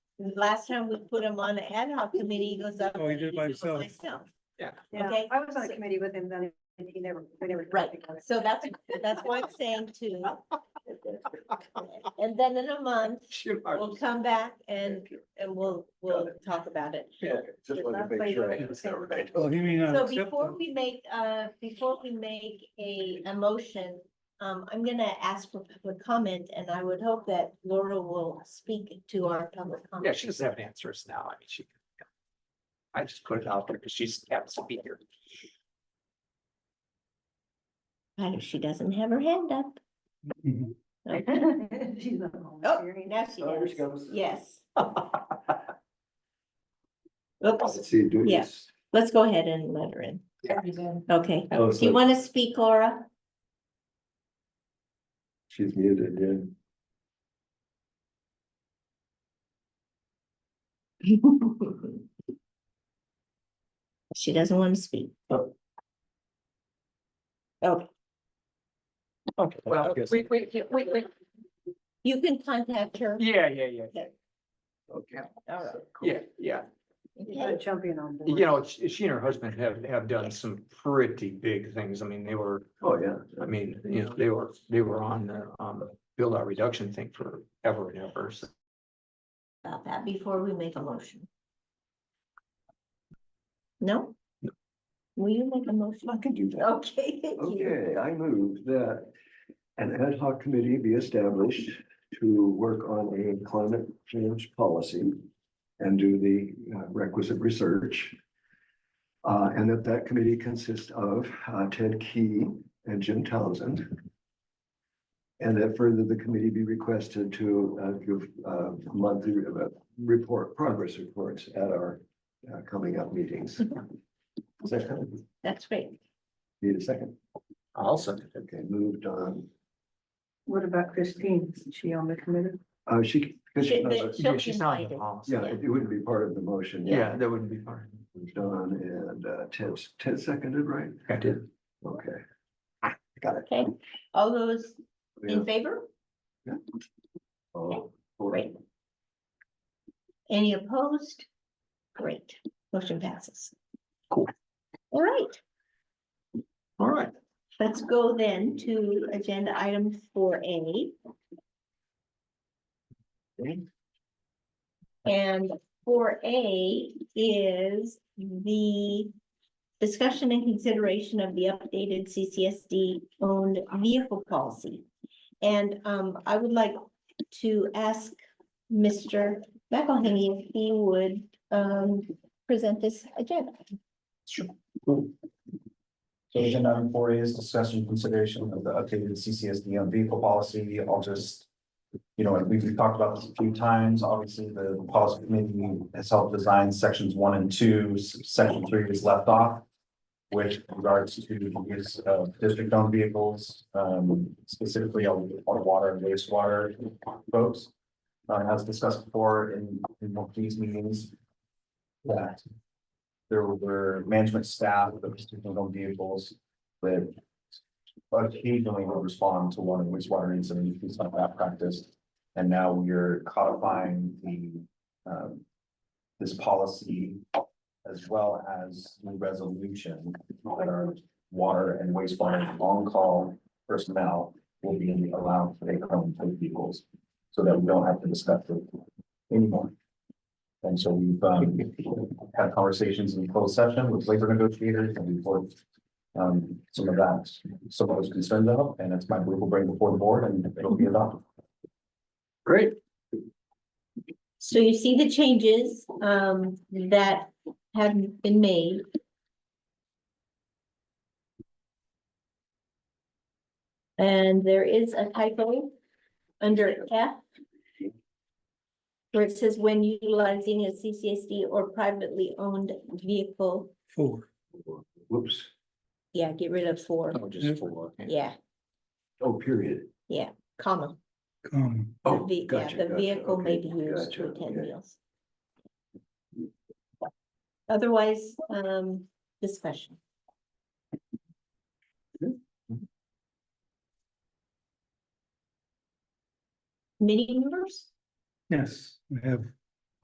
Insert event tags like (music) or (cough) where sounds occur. last time we put him on the ad hoc committee, he goes up. Oh, he did by himself. Myself. Yeah, Okay. I was on So- a committee with him then, and he never, we never. Right, so that's, that's what I'm saying too. And then in a month, You are- we'll come back and, and we'll, we'll talk about it. Okay, Just wanted to make sure. I understand right. Oh, he may not So accept before them. we make, uh, before we make a, a motion, um, I'm gonna ask for public comment and I would hope that Laura will speak to our public Yeah, comment. she doesn't have an answer us now. I mean, she. I just put it out there because she's happens to be here. And if she doesn't have her hand up. Mhm. Okay. (laughs) She's not home. Oh, now she Oh, here does. she comes. (laughs) Yes. Oops. Let's see, do Yeah. this. Let's go ahead and let her in. Okay. Oh, Do you so want to speak, Laura? She's muted, yeah. (laughs) She doesn't want to speak. Oh. Okay. Okay, well, we, we, we, we, you can contact her. yeah, yeah, yeah. Okay. All right. Yeah, yeah. Okay. Jumping on. board. You know, she she and her husband have, have done some pretty big things. I mean, they were, Oh, yeah. I mean, you know, they were, they were on the, um, build out reduction thing forever and ever. So About that before we make a motion. No? Will you make a motion? I can do that. Okay, thank you. Okay, I move that an ad hoc committee be established to work on a climate change policy and do the uh, requisite research. Uh, and that that committee consists of uh, Ted Key and Jim Townsend. And that further, the committee be requested to uh, give uh, monthly uh, report, progress reports at our uh, coming up meetings. Second, That's great. need a second? also, Okay, moved on. What about Christine? Is she on the committee? Uh, she, because she, Should the- yeah, she's not in the Invited. policy. yeah, it wouldn't be part of the motion. Yeah, that wouldn't be fine. Moved on and uh, Ted, Ted seconded, right? I did. Okay. Ah, Got it. Okay, all those Yeah. in favor? Oh, four. Great. Any opposed? Great, motion passes. Cool. All right, All right. let's go then to agenda item four A. And four A is the discussion and consideration of the updated CCSD owned vehicle policy. And um, I would like to ask Mr. McElhaney if he would um, present this agenda. Sure. So agenda item four A is discussion consideration of the updated CCSD on vehicle policy. I'll just. You know, and we've we've talked about this a few times. Obviously, the policy committee has helped design sections one and two, S- section three is left off. With regards to the use of district owned vehicles, um, specifically on on water and wastewater folks. Uh, as discussed before in in one of these meetings. That there were management staff that was taking on vehicles that occasionally will respond to one of wastewater incidents, things like that practice. And now we're codifying the, um, this policy as well as the resolution that our water and wastewater on-call personnel will be allowed to take home their vehicles so that we don't have to discuss it anymore. And so we've, um, had conversations in closed session with labor negotiators and we've worked um, some of that, some of those concerns out, and it's my group will bring before the board and it'll be adopted. Great. So you see the changes um, that have been made. And there is a typo under F. Where it says when utilizing a CCSD or privately owned vehicle, Four. Whoops. yeah, get rid of four, Oh, just four. yeah, Oh, period. comma. Um, The Oh, ve- yeah, gotcha, The gotcha, vehicle may okay, be used gotcha, to attend okay. meals. Otherwise, um, discussion. Mm-hmm. Committee members, yes, we have